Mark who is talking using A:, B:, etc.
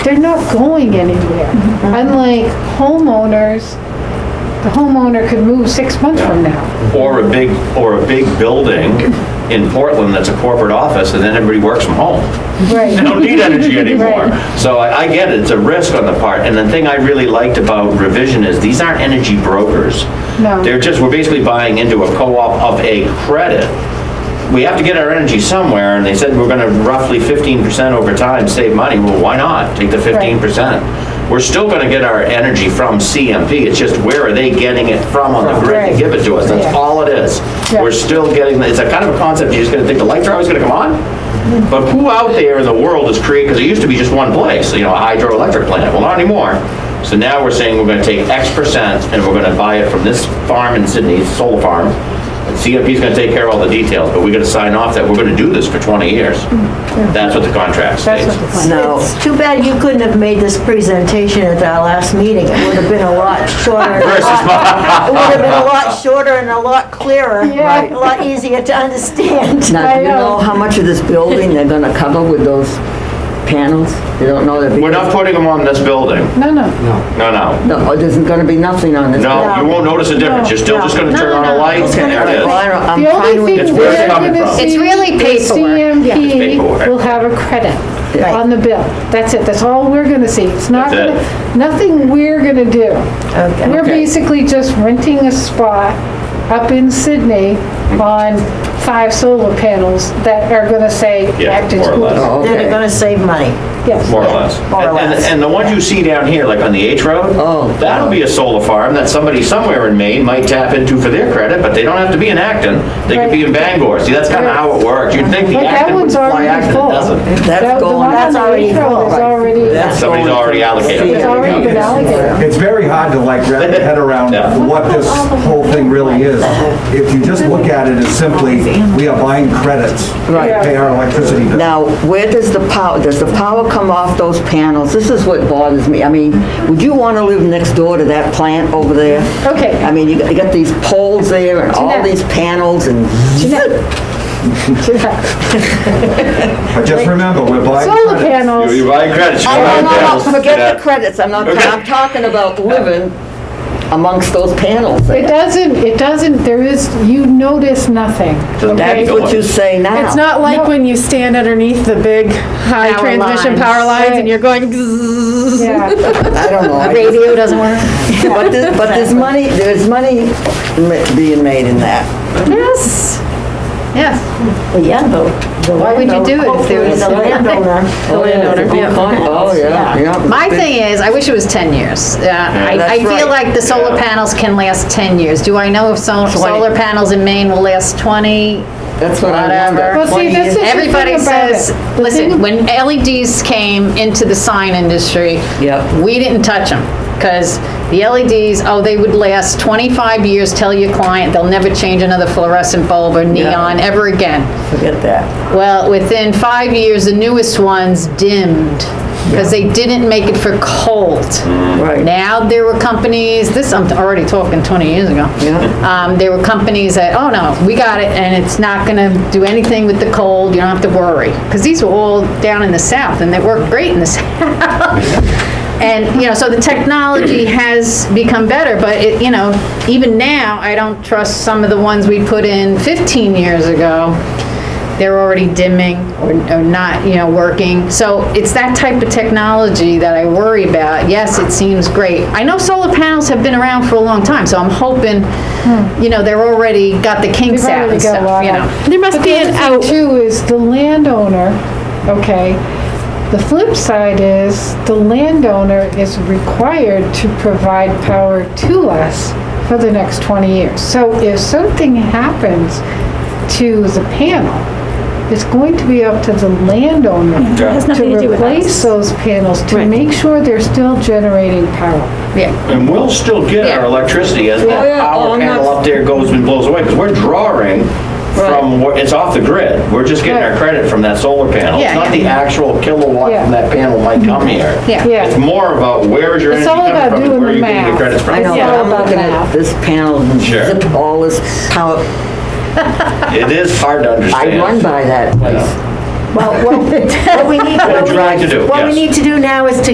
A: they're not going anywhere. Unlike homeowners, the homeowner could move six months from now.
B: Or a big, or a big building in Portland that's a corporate office, and then everybody works from home. They
A: Right.
B: don't need energy anymore.
A: Right.
B: So I I get it, it's a risk on the part. And the thing I really liked about revision is these aren't energy brokers.
A: No.
B: They're just, we're basically buying into a co-op of a credit. We have to get our energy somewhere, and they said we're gonna roughly 15% over time save money. Well, why not? Take the 15%. We're still gonna get our energy from CMP, it's just where are they getting it from on the grid
A: Right.
B: to give it to us? That's
A: Yeah.
B: all it is.
A: Yeah.
B: We're still getting, it's a kind of a concept, you're just gonna think the lights are always gonna come on? But who out there in the world is creating, because it used to be just one place, you know, a hydroelectric plant, well, not anymore. So now we're saying we're gonna take X percent and we're gonna buy it from this farm in Sydney, it's a solar farm. And CFP's gonna take care of all the details, but we gotta sign off that we're gonna do this for 20 years.
C: Mm,
B: That's what the contract
A: That's
B: states.
A: what the plan
D: No.
C: It's too bad you couldn't have made this presentation at our last meeting. It would have been a lot shorter. and a lot- It would have been a lot shorter and a lot clearer,
A: Yeah.
C: a lot easier to understand.
D: Now, do
A: I
D: you
A: know.
D: know how much of this building they're gonna cover with those panels? You don't know that.
B: We're not putting them on this building,
A: No, no.
B: no, no.
D: No, oh, there's gonna be nothing on this.
B: No, you won't notice a difference, you're still just gonna
C: No,
B: turn on
C: no,
B: a
C: no,
B: light,
C: it's gonna
B: and
C: be
B: there
D: Well,
B: it is.
D: I don't- I'm
A: The
D: fine
A: only
D: with
A: thing
B: It's
D: this.
B: where it's
A: we're
B: coming
A: gonna
B: from.
A: see.
E: It's really
A: the
E: paperwork.
B: It's paperwork.
A: CMP will have a credit
D: Right.
A: on the bill. That's it, that's all we're gonna see. It's not
B: That's
A: gonna,
B: it.
A: nothing we're gonna do.
C: Okay.
A: We're
B: Okay.
A: basically just renting a spot up in Sydney on five solar panels that are gonna say
B: Yeah,
A: Acton
B: more or less.
A: Schools.
D: Oh,
C: They're
D: okay.
C: gonna save money.
A: Yes.
B: More or less.
C: More or
B: And- and-
C: less.
B: And the ones you see down here, like on the H Road?
D: Oh.
B: That'll be a solar farm that somebody somewhere in Maine might tap into for their credit, but they don't have to be in Acton. They could be in Bangor. See, that's kind of how it works. You'd think the
A: But that
B: Acton would
A: one's
B: fly
A: already
B: Acton,
A: full.
B: it doesn't.
A: That-
D: That's
A: the one
D: going,
C: that's
A: on the
C: already
A: intro
C: full.
A: is already-
D: That's
B: Somebody's
D: going
B: already
D: to
B: allocated.
D: see
A: It's already been
D: it.
A: allocated.
F: It's very hard to like wrap your head around
B: Yeah.
F: what this whole thing really is. If you just look at it as simply, we are buying credits to
D: Right.
F: pay our electricity bill.
D: Now, where does the power, does the power come off those panels? This is what bothers me. I mean, would you wanna live next door to that plant over there?
A: Okay.
D: I mean, you got, you got these poles there and all
A: Jeanette.
D: these panels and
F: But just remember, we're buying
A: Solar
F: credits.
A: panels.
B: You're buying credits. you're
D: Oh,
B: buying
D: no, no,
B: panels.
D: no, forget
B: Yeah.
D: the credits, I'm not, I'm talking about living amongst those panels
A: It
D: there.
A: doesn't, it doesn't, there is, you notice nothing.
B: Doesn't matter.
A: okay?
D: That's what you say now.
E: It's not like when you stand underneath the big high
C: Power
E: transmission
C: lines.
E: power lines
A: Right.
E: and you're going zzzz.
A: Yeah,
D: I don't know. I just-
E: Radio doesn't work.
D: But there's, but there's money, there's money ma- being made in that.
E: Yes. Yes.
C: Well, yeah, the.
E: Why would you do it if there was-
C: The landowner.
D: The
E: landowner, yeah.
D: Oh, yeah, yeah.
G: My thing is, I wish it was 10 years. Yeah, I, I
D: that's
G: feel
D: right.
G: like the solar
B: Yeah.
G: panels can last 10 years. Do I know if so- solar panels in Maine will last 20?
D: That's what I
G: Whatever.
D: wonder.
A: Well, see,
D: 20
A: this
D: years.
A: is- the
G: Everybody
A: thing about
G: says,
A: it. The
G: listen,
A: thing-
G: when LEDs came into the sign industry,
D: Yep.
G: we didn't touch them, because the LEDs, oh, they would last 25 years, tell your client, they'll never change another fluorescent bulb or neon ever again.
D: Forget that.
G: Well, within five years, the newest ones dimmed because they didn't make it for cold.
D: Right.
G: Now there were companies, this I'm already talking 20 years ago.
D: Yeah.
G: Um, there were companies that, oh no, we got it and it's not going to do anything with the cold. You don't have to worry. Because these were all down in the south and they worked great in the south. And, you know, so the technology has become better, but it, you know, even now, I don't trust some of the ones we put in 15 years ago. They're already dimming or, or not, you know, working. So it's that type of technology that I worry about. Yes, it seems great. I know solar panels have been around for a long time, so I'm hoping, you know, they're already got the kinks
A: They've
G: out
A: Hmm. already got a
G: and stuff,
A: lot
G: you
A: out.
G: know.
E: There must
A: But
E: be
A: the
E: an
A: other
E: out.
A: thing too is the landowner, okay? The flip side is the landowner is required to provide power to us for the next 20 years. So if something happens to the panel, it's going to be up to the landowner
B: has
A: to replace those panels, to make sure they're still generating power.
G: Yeah.
B: And we'll still get our
G: Yeah.
B: electricity as
D: Oh,
B: that
D: yeah. Oh,
B: power
D: I'm not-
B: panel up there goes and blows away, because we're drawing from, where- it's off the grid. We're just getting our
A: Right.
B: credit from that solar panel. It's
G: Yeah,
B: not
G: yeah.
B: the actual kilowatt
A: Yeah.
B: from that panel might come here.
G: Yeah.
A: Yeah.
B: It's more about where is your
A: It's
B: energy
A: all about
B: coming from,
A: doing
B: and where
A: the
B: are you getting your
A: math.
B: credits from?
D: I know, but
A: all
D: I'm
A: about
D: looking
A: that.
D: at this panel and
B: Sure.
D: zip all this power.
B: It is hard to understand.
D: I run by that place.
C: Well, what what we need,
B: What
C: what
B: we're trying to
C: we
B: do,
C: need, what we
B: yes.
C: need to do now is to